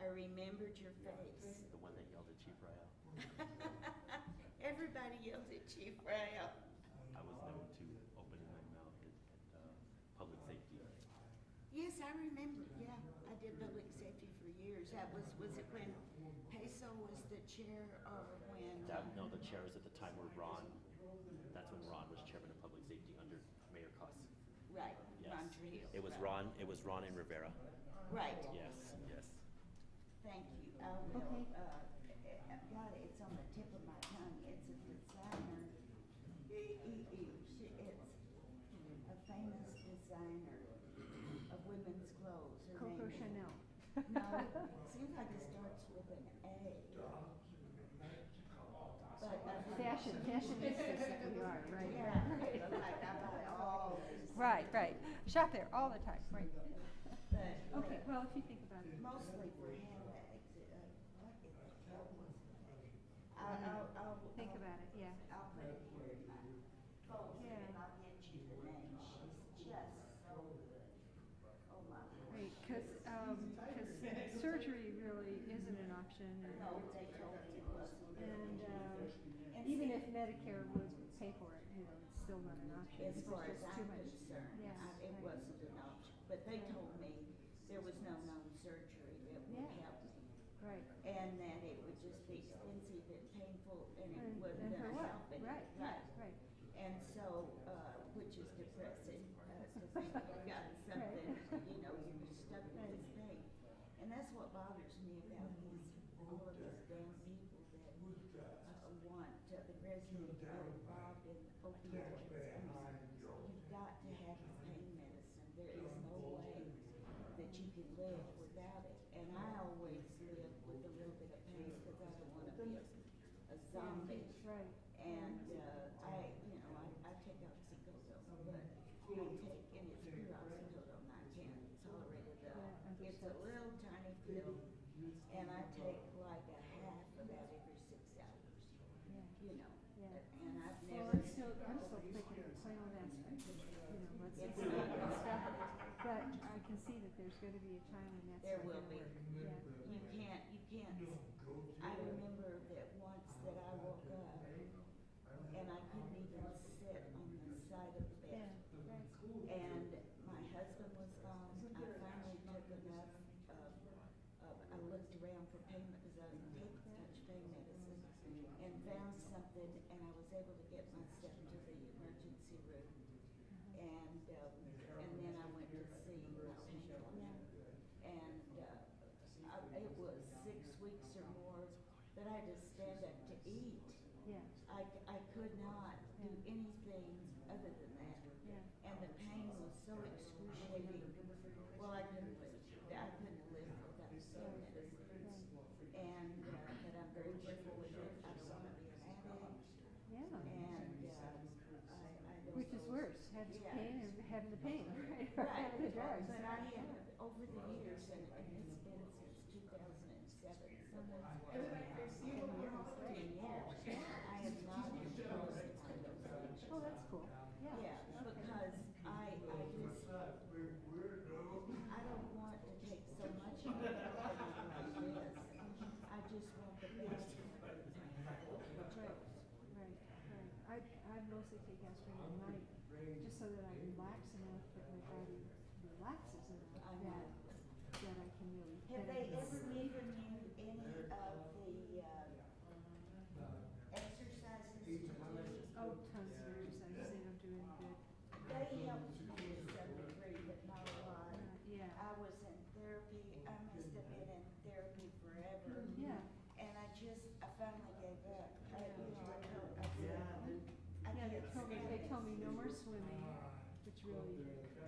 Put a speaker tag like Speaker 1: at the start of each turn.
Speaker 1: remembered your
Speaker 2: Yeah,
Speaker 1: face.
Speaker 2: The one that yelled at Chief Ryle.
Speaker 1: Everybody yelled at Chief Rail.
Speaker 2: I was known to open my mouth at, at, uh, public safety.
Speaker 1: Yes, I remember, yeah, I did public safety for years, that was, was it when Peso was the chair or when?
Speaker 2: That, no, the chairs at the time were Ron, that's when Ron was chairman of public safety under Mayor Cuss.
Speaker 1: Right,
Speaker 2: Yes.
Speaker 1: Ron Trujillo.
Speaker 2: It was
Speaker 1: right.
Speaker 2: Ron, it was Ron and Rivera.
Speaker 1: Right,
Speaker 2: Yes, yes.
Speaker 1: thank you, I will, uh, uh, God, it's on the tip of my tongue, it's a designer. E- e- e- she- It's a famous designer of women's clothes. Her
Speaker 3: Coco
Speaker 1: name is-
Speaker 3: Chanel.
Speaker 1: No, it seems like it starts with an A. But, uh,
Speaker 3: Fashion, fashionistas that we are,
Speaker 1: Yeah,
Speaker 3: right?
Speaker 1: like I buy all these.
Speaker 3: Right, right. Shop there all the time, right.
Speaker 1: But-
Speaker 3: Okay, well, if you think about it.
Speaker 1: Mostly for handbags, uh, what in the hell was that? I'll, I'll, I'll.
Speaker 3: Think
Speaker 1: I'll-
Speaker 3: about it, yeah.
Speaker 1: I'll put it here in my phone, and
Speaker 3: Yeah.
Speaker 1: I'll get you the name, she's just so good. Oh my.
Speaker 3: Right, cause, um, 'cause surgery really isn't an option
Speaker 1: No,
Speaker 3: or,
Speaker 1: they told me it wasn't.
Speaker 3: and, um,
Speaker 1: And
Speaker 3: even
Speaker 1: see-
Speaker 3: if Medicare would pay for it, you know, it's still not an option.
Speaker 1: As
Speaker 3: It's
Speaker 1: far as
Speaker 3: just too
Speaker 1: I'm
Speaker 3: much.
Speaker 1: concerned,
Speaker 3: Yeah,
Speaker 1: I- it
Speaker 3: right.
Speaker 1: wasn't an option, but they told me there was no known surgery that would
Speaker 3: Yeah.
Speaker 1: help me.
Speaker 3: Right,
Speaker 1: And that it would just be expensive and painful and it
Speaker 3: and,
Speaker 1: wasn't
Speaker 3: and for
Speaker 1: gonna
Speaker 3: what?
Speaker 1: help any-
Speaker 3: Right, yeah, right.
Speaker 1: And so, uh, which is depressing, uh, to think you got something, you know, you were stuck with this thing. And that's what bothers me about these, all of these damn people that, uh, want, uh, the resident are involved in opioids. You've got to have the pain medicine, there is no way that you can live without it. And I always live with a little bit of pain, cause I don't wanna be a a zombie.
Speaker 3: Right.
Speaker 1: And, uh, I, you know, I, I take oxycodone, but I take, and it's pure oxycodone, I can't tolerate it at all.
Speaker 3: Yeah,
Speaker 1: It's a little tiny pill, and I take like a half about every six hours,
Speaker 3: Yeah,
Speaker 1: you know,
Speaker 3: yeah.
Speaker 1: and I've
Speaker 3: Well,
Speaker 1: never.
Speaker 3: I'm still, I'm still thinking of my own aspect of, you know,
Speaker 1: It's
Speaker 3: let's, let's
Speaker 1: not-
Speaker 3: stop it. But I can see that there's gonna be a time when that's
Speaker 1: There
Speaker 3: not
Speaker 1: will
Speaker 3: gonna
Speaker 1: be.
Speaker 3: work. Yeah,
Speaker 1: You can't, you can't, I remember that once that I woke up, and I couldn't even sit on the side of the bed.
Speaker 3: yeah, right.
Speaker 1: And my husband was gone, I finally took enough of, of, I looked around for pain, because I didn't take much pain medicine, and found something, and I was able to get myself to the emergency room. And, um, and then I went to see my painkiller. And, uh, I, it was six weeks or more that I had to stand up to eat.
Speaker 3: Yeah,
Speaker 1: I, c- I could not do anything other than that.
Speaker 3: yeah.
Speaker 1: And the pain was so excruciating. Well, I couldn't live, I couldn't live without pain medicine. And, uh, but I'm very careful with it. I don't wanna be an addict.
Speaker 3: Yeah,
Speaker 1: And, um, I, I don't.
Speaker 3: which is
Speaker 1: know.
Speaker 3: worse, having
Speaker 1: Yeah.
Speaker 3: pain or having the pain, right, or
Speaker 1: Right,
Speaker 3: having the drugs.
Speaker 1: but I have, over the years, and, and it's been since two thousand and seven, someone's. In almost ten years, I have not imposed on those.
Speaker 3: Oh, that's cool, yeah.
Speaker 1: Yeah, because I, I just, I don't want to take so much of it like this. I just want the best.
Speaker 3: Right, right, right. I, I mostly take aspirin at night, just so that I relax enough, that my body relaxes enough,
Speaker 1: I
Speaker 3: that,
Speaker 1: know.
Speaker 3: that I can really.
Speaker 1: Have they
Speaker 3: benefit.
Speaker 1: ever given you any of the, uh, exercises to do?
Speaker 3: Oh, tons of exercise, they don't do any good.
Speaker 1: They helped me to some degree, but not a lot.
Speaker 3: Uh, Yeah,
Speaker 1: I was in therapy, I must have been in therapy forever.
Speaker 3: yeah,
Speaker 1: And I just, I finally gave up. I, you know, I told, I said, I
Speaker 3: yeah, they
Speaker 1: can't
Speaker 3: told me,
Speaker 1: stand
Speaker 3: they
Speaker 1: this."
Speaker 3: told me no more swimming, which really